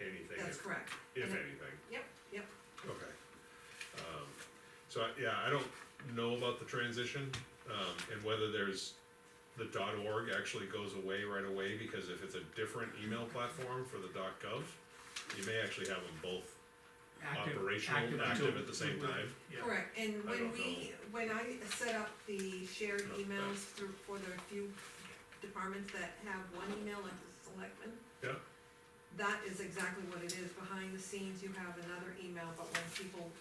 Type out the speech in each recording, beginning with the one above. anything, That's if correct. if And it- anything, Yep, yep, okay. Um, So, I- yeah, I don't know about the transition, um, and whether there's, the dot org actually goes away right away, because if it's a different email platform for the dot gov, you may actually have them both Active- operational, until- active at the same time. Yeah, correct, and I when don't we, when I set up the shared No, emails through, for the few departments that have one email, like the selectmen. Yeah. That is exactly what it is, behind the scenes you have another email, but when people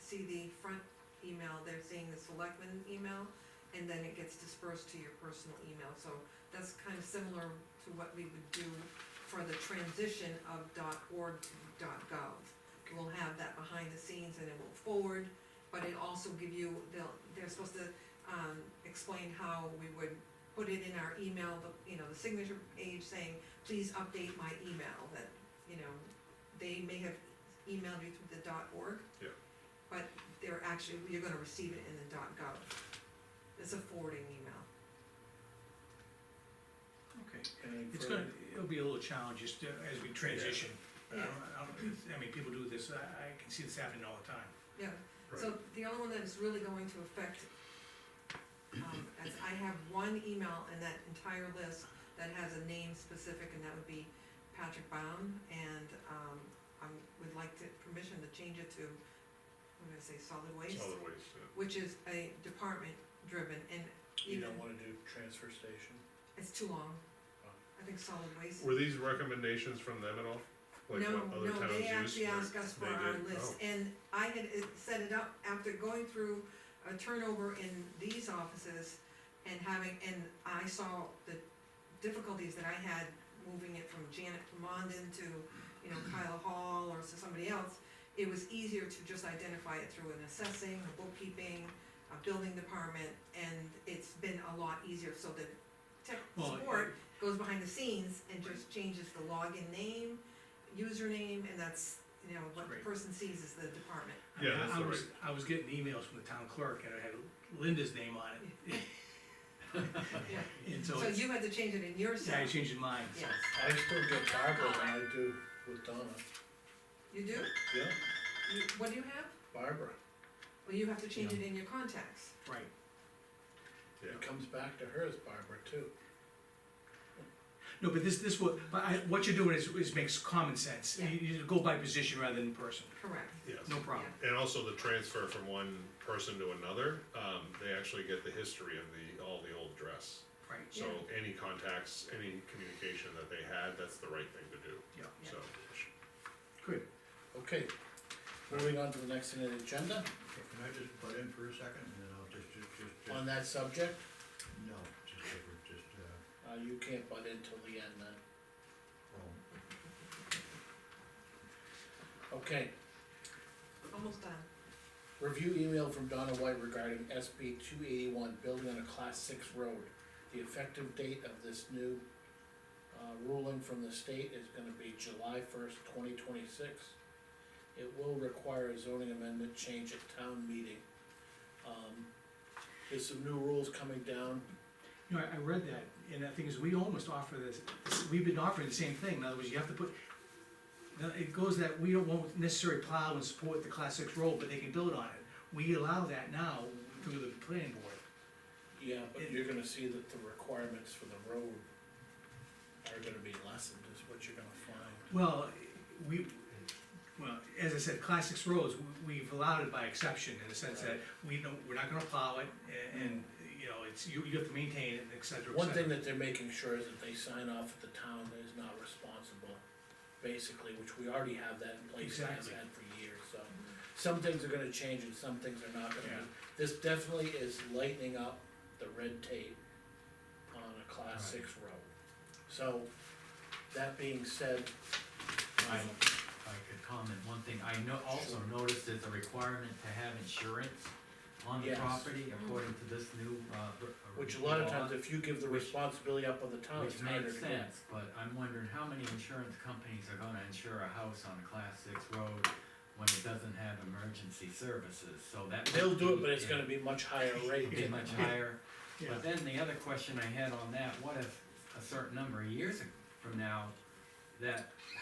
see the front email, they're seeing the selectmen email, and then it gets dispersed to your personal email, so that's kind of similar to what we would do for the transition of org to gov. We'll have that behind the scenes and it will forward, but it also give you, they'll, they're supposed to, um, explain how we would put it in our email, the, you know, the signature page saying, please update my email, that, you know, they may have emailed you through the org. Yeah. But they're actually, you're gonna receive it in the gov. It's a forwarding email. okay. Anything It's further? gonna, it'll be a little challenge just uh, as we transition. I Yeah. don't, I don't, I mean, people do this, I, I can see this happening all the time. Yeah, so the only one that is really going to affect, um, as I have one email in that entire list that has a name specific, and that would be Patrick Baum, and, um, I would like to, permission to change it to, I'm gonna say solid waste, Solid waste, yeah. which is a department driven, and You even, don't wanna do transfer station? it's too long. Oh. I think solid waste. Were these recommendations from them at all? Like No, what other no, towns they use? actually Or asked us for they our did? list, Oh, and I had uh, set it up after going through a turnover in these offices and having, and I saw the difficulties that I had moving it from Janet Plumondon to, you know, Kyle Hall or to somebody else. It was easier to just identify it through an assessing, a bookkeeping, a building department, and it's been a lot easier, so the tech Well, I- support goes behind the scenes and just changes the login name, username, and that's, you know, what the Great. person sees is the department. I mean, Yeah, that's I- I the was- I was getting emails from the town clerk and it had Linda's name on it. And so So it's, you had to change it in your yeah, I cell. changed mine, so. Yes, I still get Barbara than I do with Donna, you do? yeah, You, what do you have? Barbara, Well, you have to change it in your contacts. Right, Yeah. it comes back to her as Barbara too. no, but this, this, what, I, what you're doing is, is makes common sense, you, Yeah. you go by position rather than person, Correct. Yes. no problem. And also the transfer from one person to another, um, they actually get the history of the, all the old dress. Right, So any contacts, any communication that they had, that's the right thing to do, yeah, Yeah. so. good. Okay, moving on to the next thing on the agenda, Okay, Can I just butt in for a second, and then I'll just, just, just, on just, that subject, no, just, over- just, uh, uh, you can't butt in till the end then, well, okay. Almost done. Review email from Donna White regarding SB two eighty-one, building on a class six road. The effective date of this new, uh, ruling from the state is gonna be July first, twenty twenty-six. It will require a zoning amendment change at town meeting. Um, there's some new rules coming down, You know, I, I read that, and the thing is, we almost offer this, this- we've been offering the same thing, in other words, you have to put, now, it goes that we don't want necessarily plow and support the class six road, but they can build on it. We allow that now through the planning board. yeah, but you're gonna see that the requirements for the road are gonna be lessened, is what you're gonna find. Well, we, well, as I said, class six roads, we- we've allowed it by exception, in the sense that we don't, we're not gonna plow it, a- and, you know, it's, you, you have to maintain it, et cetera, et One cetera. thing that they're making sure is that they sign off that the town is not responsible, basically, which we already have that in place and have Exactly. had for years, so. Some things are gonna change and some things are not gonna Yeah. be. This definitely is lightening up the red tape on a class Right. six road. So, that being said, um, I, I could comment one thing, I know, also noticed there's a requirement to have insurance on the Yes. property according to this new, uh. r- which a lot of law, times, if you give the Which- responsibility up on the town, Which it's harder makes to get. sense, but I'm wondering how many insurance companies are gonna insure a house on a class six road when it doesn't have emergency services, so that. might They'll do it, be but it's a- gonna be much higher rate. be much higher. Yeah. But then the other question I had on that, what if a certain number of years from now, that